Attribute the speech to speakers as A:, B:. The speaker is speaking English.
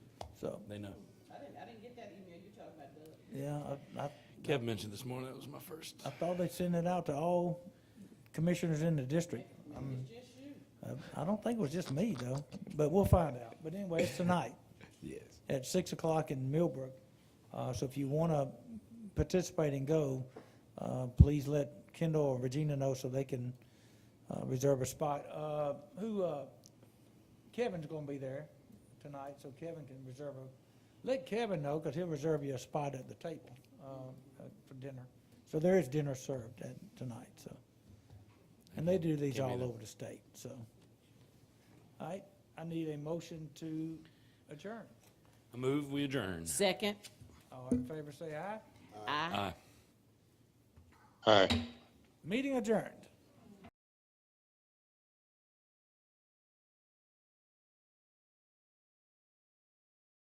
A: so,
B: They know.
C: I didn't, I didn't get that email you talking about, Doug.
A: yeah, I, I,
B: Kev mentioned this morning, that was my first.
A: I thought they sent it out to all commissioners in the district.
C: It's just you.
A: I- I don't think it was just me though, but we'll find out. But anyway, it's tonight
D: Yes.
A: at six o'clock in Millbrook. Uh, so if you wanna participate and go, uh, please let Kendall or Regina know so they can, uh, reserve a spot. Uh, who, uh, Kevin's gonna be there tonight, so Kevin can reserve a, let Kevin know, cause he'll reserve you a spot at the table, um, uh, for dinner. So there is dinner served at, tonight, so. And they do these
B: Can't be
A: all
B: there.
A: over the state, so. All right, I need a motion to adjourn.
B: I move, we adjourn.
C: Second.
A: All in favor, say aye.
B: Aye.
C: Aye.
D: All right.
A: Meeting adjourned.